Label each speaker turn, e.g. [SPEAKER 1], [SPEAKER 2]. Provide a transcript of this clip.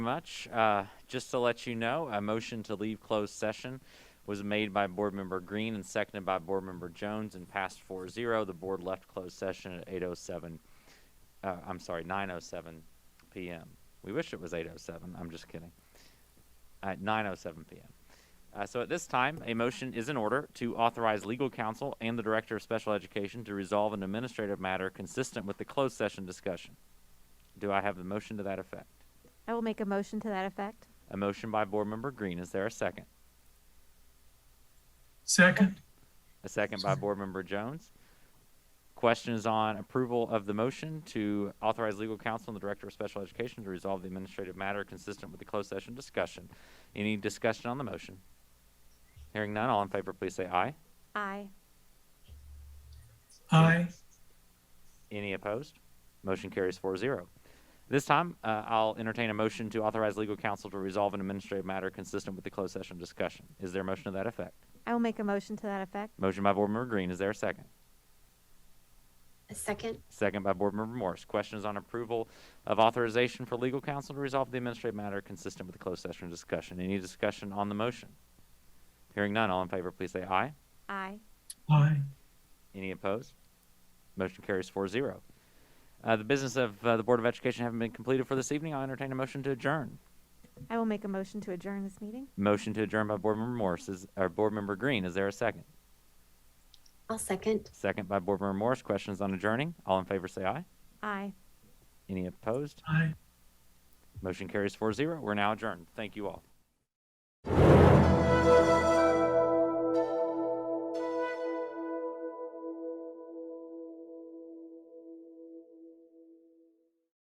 [SPEAKER 1] much. Uh, Just to let you know, a motion to leave closed session was made by Board Member Green and seconded by Board Member Jones and passed 4-0. The board left closed session at 8:07, uh, I'm sorry, 9:07 PM. We wish it was 8:07, I'm just kidding. Uh, oh At 9:07 PM. Uh, So at this time, a motion is in order to authorize legal counsel and the Director of Special Education to resolve an administrative matter consistent with the closed session discussion. Do I have a motion to that effect?
[SPEAKER 2] I will make a motion to that effect.
[SPEAKER 1] A motion by Board Member Green. Is there a second?
[SPEAKER 3] Second,
[SPEAKER 1] A second by Board Member Jones. Questions on approval of the motion to authorize legal counsel and the Director of Special Education to resolve the administrative matter consistent with the closed session discussion. Any discussion on the motion? Hearing none, all in favor, please say aye.
[SPEAKER 2] Aye.
[SPEAKER 3] aye.
[SPEAKER 1] Any opposed? Motion carries 4 0. This time, uh, I'll entertain a motion to authorize legal counsel to resolve an administrative matter consistent with the closed session discussion. Is there a motion to that effect?
[SPEAKER 2] I will make a motion to that effect.
[SPEAKER 1] Motion by Board Member Green. Is there a second?
[SPEAKER 4] A second,
[SPEAKER 1] Second by Board Member Morse. Questions on approval of authorization for legal counsel to resolve the administrative matter consistent with the closed session discussion. Any discussion on the motion? Hearing none, all in favor, please say aye.
[SPEAKER 2] Aye.
[SPEAKER 3] Aye.
[SPEAKER 1] Any opposed? Motion carries 4 0. Uh, the business of uh, the Board of Education having been completed for this evening, I'll entertain a motion to adjourn.
[SPEAKER 2] I will make a motion to adjourn this meeting.
[SPEAKER 1] Motion to adjourn by Board Member Morse, is, or Board Member Green. Is there a second?
[SPEAKER 4] I'll second.
[SPEAKER 1] Second by Board Member Morse. Questions on adjourning? All in favor, say aye.
[SPEAKER 2] Aye.
[SPEAKER 1] Any opposed?
[SPEAKER 3] Aye.
[SPEAKER 1] Motion carries 4 0. We're now adjourned. Thank you all.